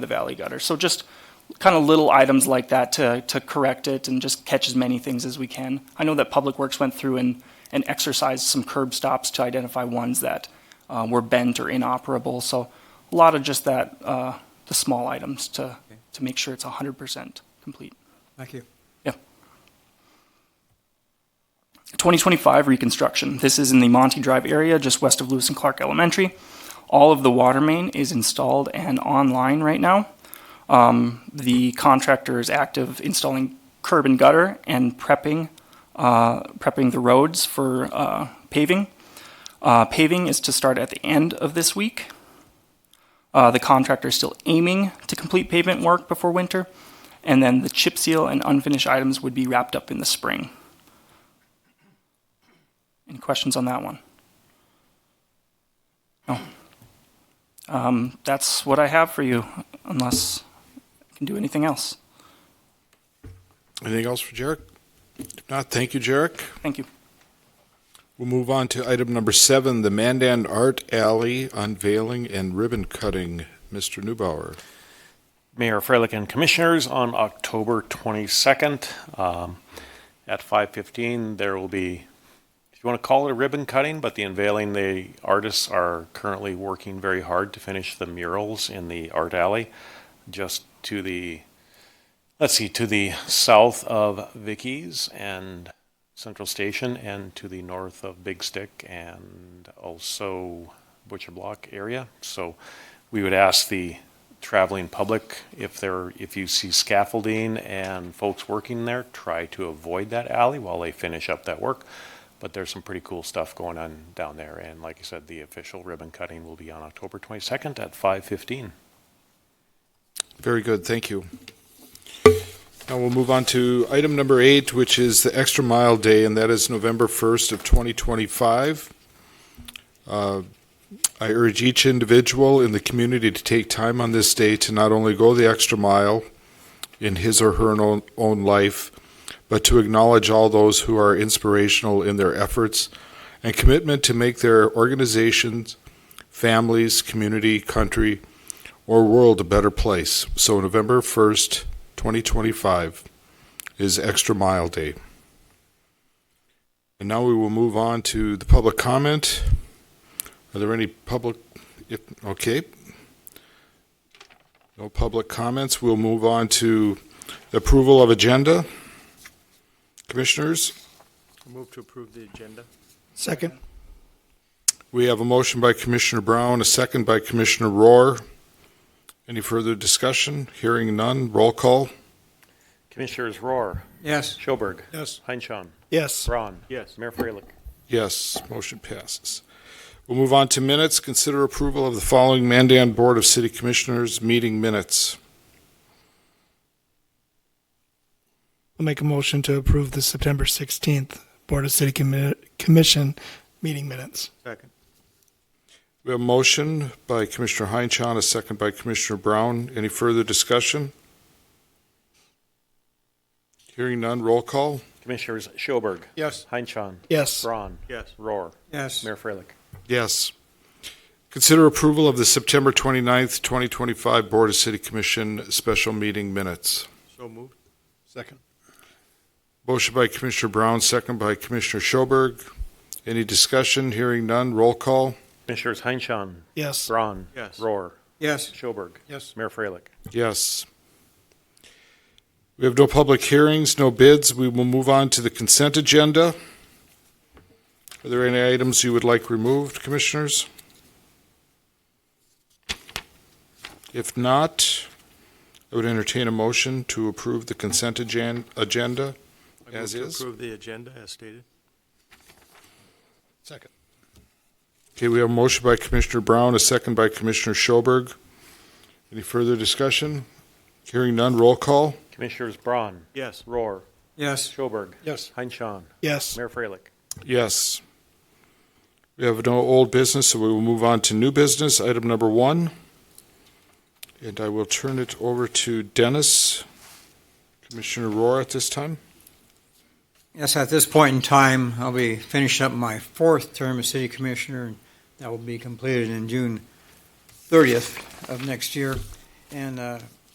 the valley gutter. So just kind of little items like that to, to correct it and just catch as many things as we can. I know that Public Works went through and, and exercised some curb stops to identify ones that uh, were bent or inoperable. So a lot of just that, uh, the small items to, to make sure it's 100% complete. Thank you. Yeah. 2025 reconstruction. This is in the Monty Drive area, just west of Lewis and Clark Elementary. All of the water main is installed and online right now. Um, The contractor is active installing curb and gutter and prepping, uh, prepping the roads for uh, paving. Uh, Paving is to start at the end of this week. Uh, the contractor is still aiming to complete pavement work before winter, and then the chip seal and unfinished items would be wrapped up in the spring. Any questions on that one? No. Um, that's what I have for you, unless I can do anything else. Anything else for Jarek? If not, thank you, Jarek. Thank you. We'll move on to item number seven, the Mandan Art Alley unveiling and ribbon cutting. Mr. Newbauer. Mayor Freilich and Commissioners, on October 22nd um, at 5:15, there will be, if you want to call it a ribbon cutting, but the unveiling, the artists are currently working very hard to finish the murals in the art alley, just to the, let's see, to the south of Vicky's and Central Station, and to the north of Big Stick, and also Butcher Block area. So we would ask the traveling public, if there, if you see scaffolding and folks working there, try to avoid that alley while they finish up that work. But there's some pretty cool stuff going on down there, and like I said, the official ribbon cutting will be on October twenty-second at five fifteen. Very good, thank you. Now we'll move on to item number eight, which is the Extra Mile Day, and that is November 1st of 2025. Uh, I urge each individual in the community to take time on this day to not only go the extra mile in his or her own, own life, but to acknowledge all those who are inspirational in their efforts and commitment to make their organizations, families, community, country, or world a better place. So November 1st, 2025 is Extra Mile Day. And now we will move on to the public comment. Are there any public, if, okay. No public comments. We'll move on to approval of agenda. Commissioners, Move to approve the agenda. Second. we have a motion by Commissioner Brown, a second by Commissioner Rohr. Any further discussion? Hearing none. Roll call. Commissioners Roar, Yes. Schoberg, Yes. Heinchan, Yes. Braun. Yes. Mayor Freilich. Yes, motion passes. We'll move on to minutes. Consider approval of the following Mandan Board of City Commissioners meeting minutes. I'll make a motion to approve the September 16th Board of City Commi- Commission meeting minutes. Second. We have a motion by Commissioner Heinchan, a second by Commissioner Brown. Any further discussion? Hearing none, roll call. Commissioners Schoberg, Yes. Heinchan, Yes, Braun, Yes. Roar, Yes. Mayor Freilich. Yes. Consider approval of the September 29th, 2025 Board of City Commission special meeting minutes. So moved. Second. Motion by Commissioner Brown, second by Commissioner Schoberg. Any discussion? Hearing none, roll call. Commissioners Heinchan, yes, Braun, Yes. Roar, Yes. Schoberg, Yes. Mayor Freilich. Yes. We have no public hearings, no bids. We will move on to the consent agenda. Are there any items you would like removed, commissioners? If not, I would entertain a motion to approve the consent agen- agenda. I As move is. to approve the agenda as stated. Second. Okay, we have a motion by Commissioner Brown, a second by Commissioner Schoberg. Any further discussion? Hearing none, roll call. Commissioners Braun, Yes. Roar, Yes. Schoberg, Yes. Heinchan, yes. Mayor Freilich. Yes. We have no old business, so we will move on to new business, item number one. And I will turn it over to Dennis, Commissioner Rohr at this time. Yes, at this point in time, I'll be finishing up my fourth term as city commissioner, and that will be completed in June 30th of next year. and uh,